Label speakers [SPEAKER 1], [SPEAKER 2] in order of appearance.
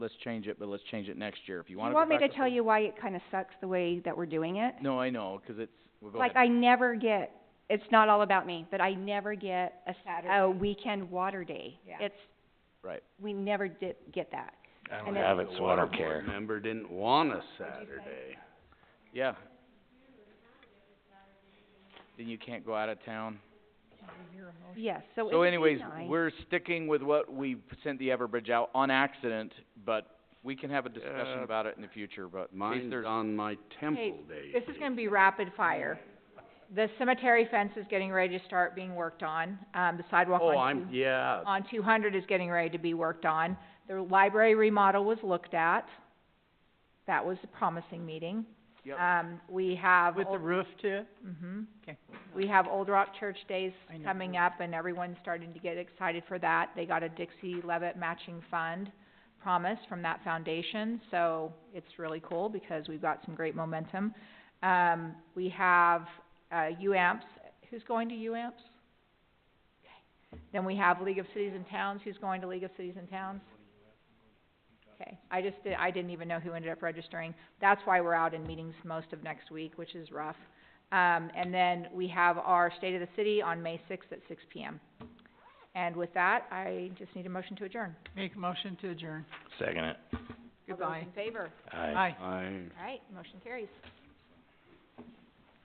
[SPEAKER 1] let's change it, but let's change it next year. If you
[SPEAKER 2] You
[SPEAKER 1] wanna
[SPEAKER 2] want
[SPEAKER 1] go
[SPEAKER 2] me
[SPEAKER 1] back
[SPEAKER 2] to
[SPEAKER 1] to
[SPEAKER 2] tell
[SPEAKER 1] full-
[SPEAKER 2] you why it kinda sucks the way that we're doing it?
[SPEAKER 1] No, I know, 'cause it's, well, go
[SPEAKER 2] Like,
[SPEAKER 1] ahead.
[SPEAKER 2] I never get, it's not all about me, but I never get a Saturday, a weekend water day.
[SPEAKER 3] Yeah.
[SPEAKER 2] It's,
[SPEAKER 1] Right.
[SPEAKER 2] we never did get that.
[SPEAKER 4] I
[SPEAKER 2] And
[SPEAKER 4] don't
[SPEAKER 2] then-
[SPEAKER 4] have it, so I don't
[SPEAKER 5] The water board
[SPEAKER 4] care.
[SPEAKER 5] member didn't want a Saturday.
[SPEAKER 1] Yeah. Then you can't go out of town.
[SPEAKER 2] Yes, so
[SPEAKER 3] Oh,
[SPEAKER 2] it
[SPEAKER 1] So
[SPEAKER 2] would be
[SPEAKER 1] anyways,
[SPEAKER 2] nice.
[SPEAKER 1] we're sticking with what we p- sent the Everbridge out on accident, but we can have a discussion
[SPEAKER 5] Yeah.
[SPEAKER 1] about it in the future, but in case
[SPEAKER 5] Mine's
[SPEAKER 1] there's-
[SPEAKER 5] on my temple day.
[SPEAKER 3] This is gonna be rapid fire. The cemetery fence is getting ready to start being worked on, um, the sidewalk on
[SPEAKER 5] Oh, I'm,
[SPEAKER 3] two,
[SPEAKER 5] yeah,
[SPEAKER 3] on two hundred is getting ready to be worked on. The library remodel was looked at. That was a promising meeting.
[SPEAKER 1] Yep.
[SPEAKER 3] Um, we have
[SPEAKER 6] With the
[SPEAKER 3] Old,
[SPEAKER 6] roof too?
[SPEAKER 3] mhm.
[SPEAKER 6] Okay.
[SPEAKER 3] We have Old Rock Church Days
[SPEAKER 6] I know.
[SPEAKER 3] coming up and everyone's starting to get excited for that. They got a Dixie Levitt matching fund promise from that foundation, so it's really cool because we've got some great momentum. Um, we have, uh, UAMPS, who's going to UAMPS? Okay. Then we have League of Cities and Towns, who's going to League of Cities and Towns? Okay, I just did, I didn't even know who ended up registering. That's why we're out in meetings most of next week, which is rough. Um, and then we have our State of the City on May sixth at six P M. And with that, I just need a motion to adjourn.
[SPEAKER 6] Make a motion to adjourn.
[SPEAKER 4] Second it.
[SPEAKER 3] All those in favor?
[SPEAKER 4] Aye.
[SPEAKER 6] Aye.
[SPEAKER 5] I.
[SPEAKER 3] All right, motion carries.